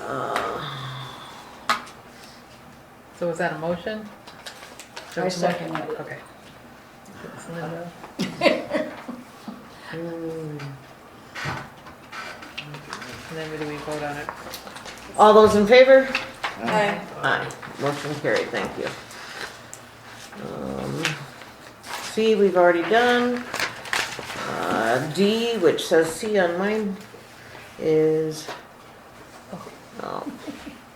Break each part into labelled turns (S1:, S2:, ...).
S1: Uh,
S2: So was that a motion?
S3: I second it.
S2: Okay. It's Linda. And then we do we vote on it?
S1: All those in favor?
S3: Aye.
S1: Aye. Motion carried, thank you. Um, C, we've already done. Uh, D, which says C on mine, is, oh,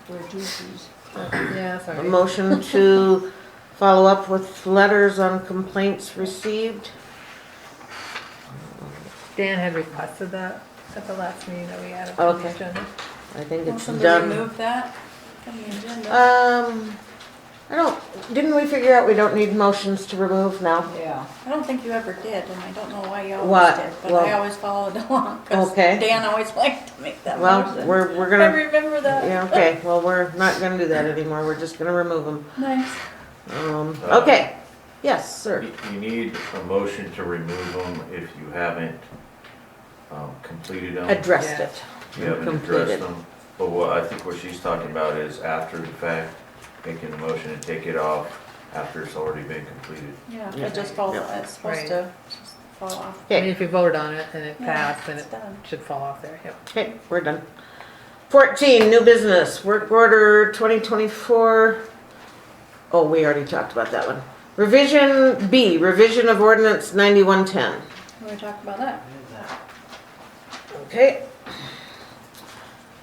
S3: We're juices.
S2: Yeah,
S1: a
S2: sorry.
S3: Oh,
S1: motion to follow up with letters on complaints received.
S2: Dan had requested that at the last meeting that we had on the
S1: Okay.
S2: agenda.
S1: I think
S3: Will
S1: it's
S3: somebody
S1: done.
S3: remove that from the agenda?
S1: Um, I don't, didn't we figure out we don't need motions to remove now?
S3: Yeah. I don't think you ever did, and I don't know why you
S1: What?
S3: always did, but I
S1: Well-
S3: always followed along, because
S1: Okay.
S3: Dan always liked to make that
S1: Well,
S3: motion.
S1: we're, we're
S3: I
S1: gonna,
S3: remember that.
S1: yeah, okay, well, we're not gonna do that anymore, we're just gonna remove them.
S3: Nice.
S1: Um, okay, yes, sir.
S4: You you need a motion to remove them if you haven't um, completed them.
S1: Addressed it.
S4: You haven't addressed
S1: completed.
S4: them. But what I think what she's talking about is after the fact, making a motion to take it off after it's already been completed.
S3: Yeah,
S1: Yeah.
S3: it just falls,
S1: Yeah.
S3: it's supposed
S2: Right.
S3: to just fall off.
S2: I mean,
S1: Okay,
S2: if you voted on it and it
S3: Yeah,
S2: passed, then
S3: it's
S2: it
S3: done.
S2: should fall off there, yep.
S1: okay, we're done. Fourteen, new business, work order twenty twenty-four. Oh, we already talked about that one. Revision B, revision of ordinance ninety-one ten.
S3: We were talking about that.
S1: Okay.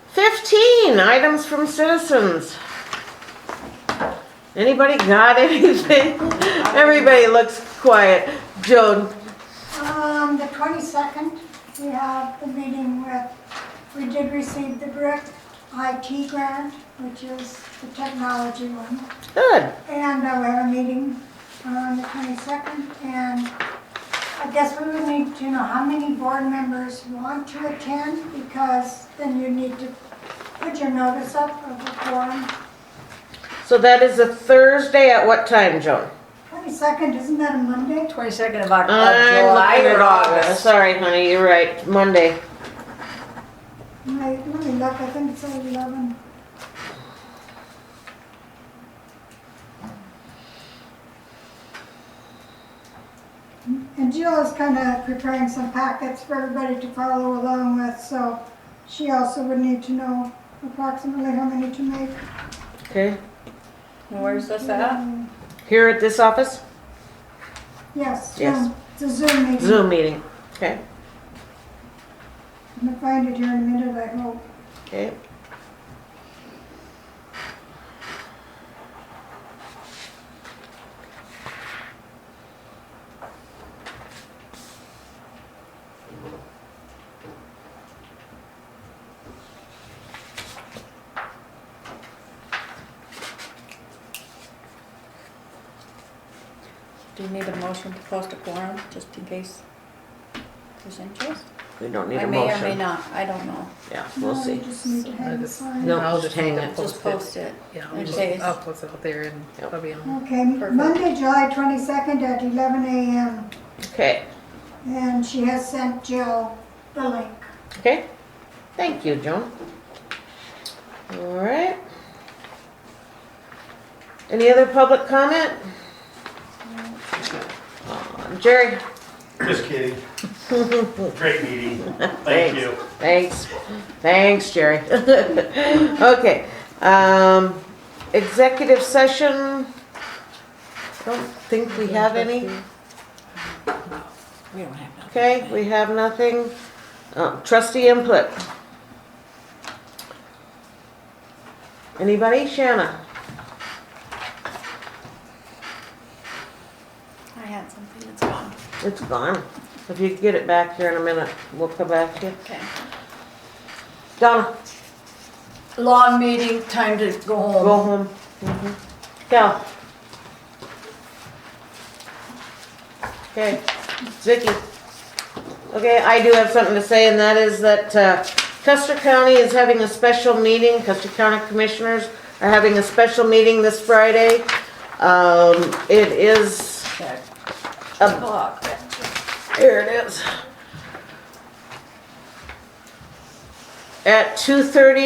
S1: Fifteen, items from citizens. Anybody got anything? Everybody looks quiet. Joan,
S5: Um, the twenty-second, we have the meeting with, we did receive the BRIC IT grant, which is the technology one.
S1: good.
S5: And uh, we have a meeting on the twenty-second, and I guess we would need to know how many board members want to attend, because then you need to put your notice up of the forum.
S1: So that is a Thursday at what time, Joan?
S5: Twenty-second, isn't that a Monday?
S3: Twenty-second of
S1: I'm looking at Sorry, honey, you're right. Monday.
S5: Let let me look, I think it's at eleven. And Jill is kind of preparing some packets for everybody to follow along with, so she also would need to know approximately how many to make.
S1: Okay.
S3: Where's this at?
S1: Mm-hmm. Here at this office?
S5: Yes,
S1: Yes.
S5: Zoom. It's a Zoom meeting.
S1: Zoom meeting. Okay.
S5: I'm gonna find it here in a minute, I hope.
S1: Okay.
S3: Do you need a motion to post a quorum, just in case there's interest?
S1: We don't need
S3: I
S1: a
S3: may or may
S1: motion.
S3: not, I don't know.
S1: Yeah, we'll
S5: No,
S1: see.
S5: you just need to hang the sign.
S1: No,
S2: I'll
S1: just hang
S2: need to
S1: it.
S3: Just post it.
S2: Yeah,
S3: It
S2: I'll just,
S3: says-
S2: I'll post it out there and
S1: Yep.
S2: it'll be on.
S5: Okay,
S3: Perfect.
S5: Monday, July twenty-second at eleven AM.
S1: Okay.
S5: And she has sent Jill the link.
S1: Okay. Thank you, Joan. All right. Any other public comment? Aw, Jerry,
S6: Just kidding. Great meeting. Thank you.
S1: Thanks, thanks, Jerry. Okay, um, executive session, don't think we have any,
S3: We don't have to.
S1: okay, we have nothing. Uh, Trustee input. Anybody? Shanna?
S3: I had something that's gone.
S1: It's gone. If you get it back here in a minute, we'll come back to you.
S3: Okay.
S1: Donna,
S7: long meeting, time to go home.
S1: go home. Mhm. Cal? Okay, Vicky. Okay, I do have something to say, and that is that uh, Custer County is having a special meeting, Custer County Commissioners are having a special meeting this Friday. Um, It is
S7: Okay.
S1: a
S3: Clock.
S1: Um, Here it is. At two thirty